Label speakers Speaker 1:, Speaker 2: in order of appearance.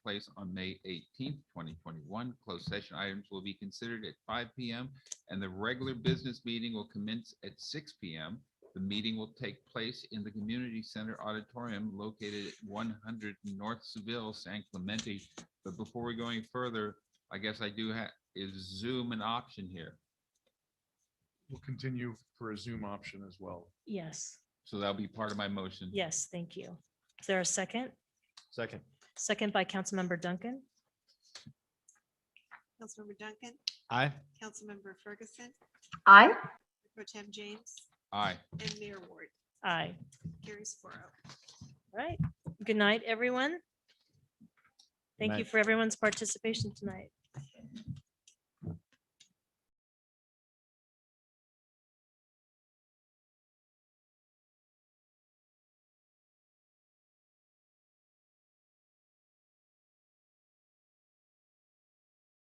Speaker 1: place on May eighteenth, twenty twenty-one. Closed session items will be considered at five P M. And the regular business meeting will commence at six P M. The meeting will take place in the Community Center Auditorium located at one hundred North Seville, San Clemente. But before we go any further, I guess I do have, is Zoom an option here?
Speaker 2: We'll continue for a Zoom option as well.
Speaker 3: Yes,
Speaker 1: So that'll be part of my motion.
Speaker 3: yes, thank you. Is there a second?
Speaker 2: Second.
Speaker 3: Second by Councilmember Duncan?
Speaker 4: Councilmember Duncan,
Speaker 2: Aye.
Speaker 4: Councilmember Ferguson,
Speaker 5: aye,
Speaker 4: Pro Tem James,
Speaker 1: Aye.
Speaker 4: and Mayor Ward.
Speaker 3: Aye.
Speaker 4: Carries four oh.
Speaker 3: All right. Good night, everyone. Thank you
Speaker 2: night.
Speaker 3: for everyone's participation tonight.